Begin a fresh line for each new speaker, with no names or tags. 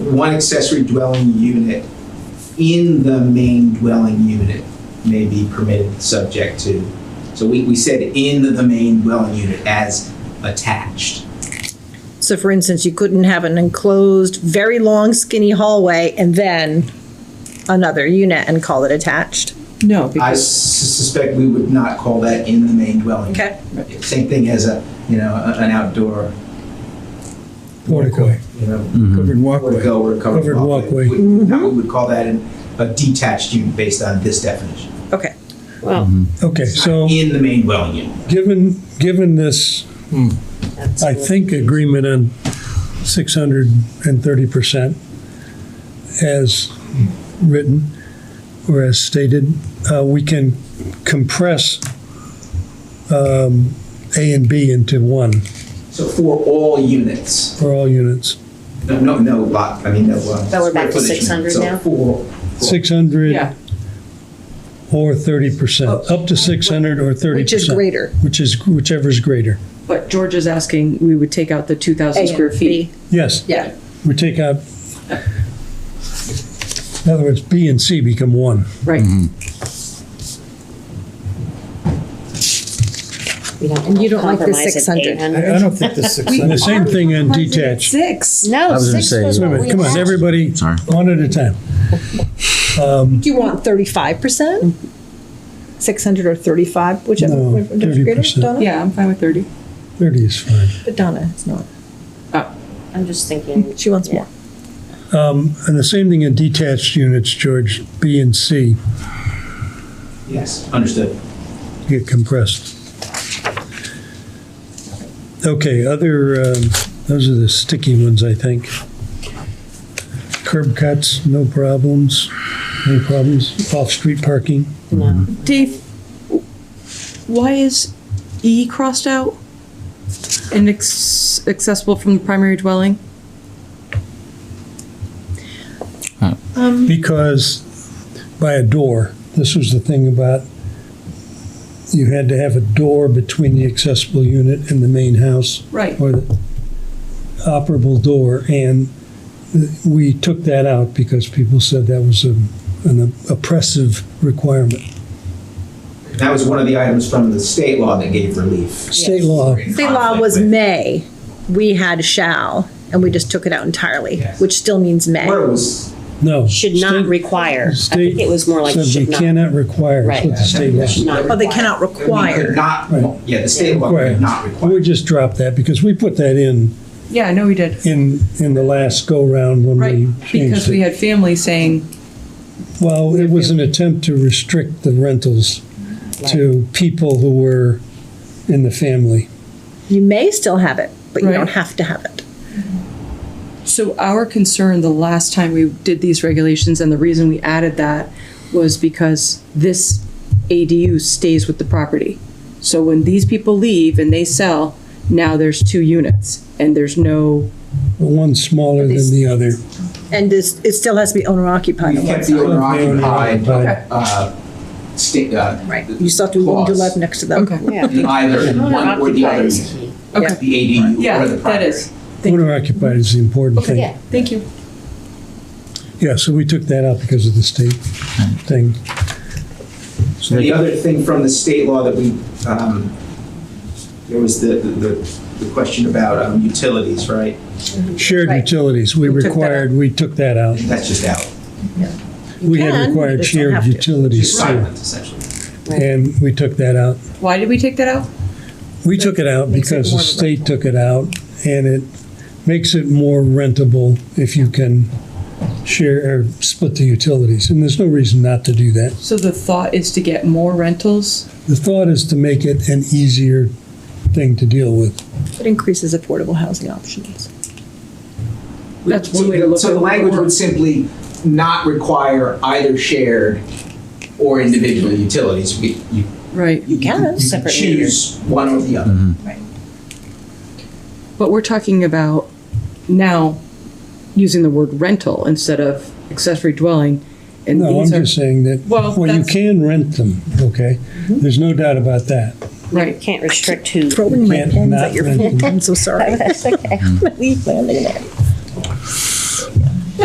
one accessory dwelling unit in the main dwelling unit may be permitted subject to. So we, we said in the main dwelling unit as attached.
So for instance, you couldn't have an enclosed, very long skinny hallway and then another unit and call it attached.
No,
I
because,
s- suspect we would not call that in the main dwelling.
Okay.
unit. Same thing as a, you know, a- an outdoor,
Portico,
you know,
covered walkway.
Portico or covered
Covered
walkway.
walkway.
We- Now, we would call that an- a detached unit based on this definition.
Okay.
well,
Okay, so
In the main dwelling unit.
given, given this, I think, agreement on 630% as written or as stated, uh, we can compress um, A and B into one
So for all units,
for all units.
no, no, no lot, I mean, no. uh,
So we're back to
square footage
600
unit.
now?
So for. for-
yeah,
600 or 30%, up to 600 or 30%.
Oh. Which is greater.
Which is, whichever's greater.
but George is asking, we would take out the two thousand square feet.
Yes.
Yeah.
We take out, in other words, B and C become one.
Right,
And you don't like the 600.
I don't think the six. The same thing on detached.
Six.
No,
was gonna
six
say-
was
Wait a
what
minute,
we
come on,
had.
everybody,
Sorry.
one at a time.
Do you want thirty-five percent? Six hundred or thirty-five, whichever.
No,
whichever greater,
30%.
Donna?
yeah, I'm fine with thirty.
Thirty is fine.
But Donna, it's not.
Oh.
I'm just thinking.
She wants
yeah.
more.
And the same thing in detached units, George, B and C
Yes, understood.
get compressed. Okay, other, um, those are the sticky ones, I think. Curb cuts, no problems, no problems, off-street parking.
No.
Dave, why is E crossed out? And ex- accessible from the primary dwelling?
because by a door, this was the thing about, you had to have a door between the accessible unit and the main house,
Right.
or the operable door, and we took that out because people said that was a- an oppressive requirement.
That was one of the items from the state law that gave relief.
State law,
State law was may, we had shall, and we just took it out entirely,
Yes.
which still means may.
Where it was,
no.
Should not
State-
require. I
state
think it was more like
said
should
they
not.
cannot require, is what the
Right.
state law.
should not
Oh, they
require.
cannot
we could
require.
Right.
not, yeah, the state law
Right.
could not
We
require.
just dropped that, because we put that in,
Yeah, I know we did.
in, in the last go-round when
Right,
we changed
because
it.
we had family saying,
Well, it was an attempt to restrict the rentals to people who were in the family.
You may still have it, but you
Right.
don't have to have it.
So our concern the last time we did these regulations and the reason we added that was because this ADU stays with the property. So when these people leave and they sell, now there's two units and there's no,
One smaller than the other.
And this, it still has to be owner occupied.
We kept the owner occupied,
Okay.
uh, state, uh.
Right, you still have to, you do live next to them.
okay,
Yeah.
in Either one or the other,
Occupied
unit,
is key.
okay.
the ADU
Yeah,
or the
that
primary.
is.
Owner occupied is the important
Yeah.
thing.
Thank you.
Yeah, so we took that out because of the state thing. So
The other thing from the state law that we, um, there was the, the, the question about um, utilities, right?
Shared
Right.
utilities, we
We took that
required, we took that out.
That's just out,
We
can,
had
you
required
just don't have
shared
to.
utilities
just
too,
silent essentially.
and we took that out.
Why did we take that out?
We took it out
Makes it
because the
more of a
state took it out, and it makes it more rentable if you can share or split the utilities, and there's no reason not to do that.
So the thought is to get more rentals?
The thought is to make it an easier thing to deal with.
It increases affordable housing options.
That's one way to look
So
at
the
it.
language would simply not require either shared or individual utilities. We- You
Right,
you
can,
you
separate
Choose one or the other.
but we're talking about now using the word rental instead of accessory dwelling. And
No, I'm
these are
just saying that,
Well,
well, you
that's-
can rent them, okay? There's no doubt about that.
You
Right,
Can't restrict who.
Throwing my
can't
pens
not
at your
rent
feet, I'm so sorry.
That's okay.
Leave landing there.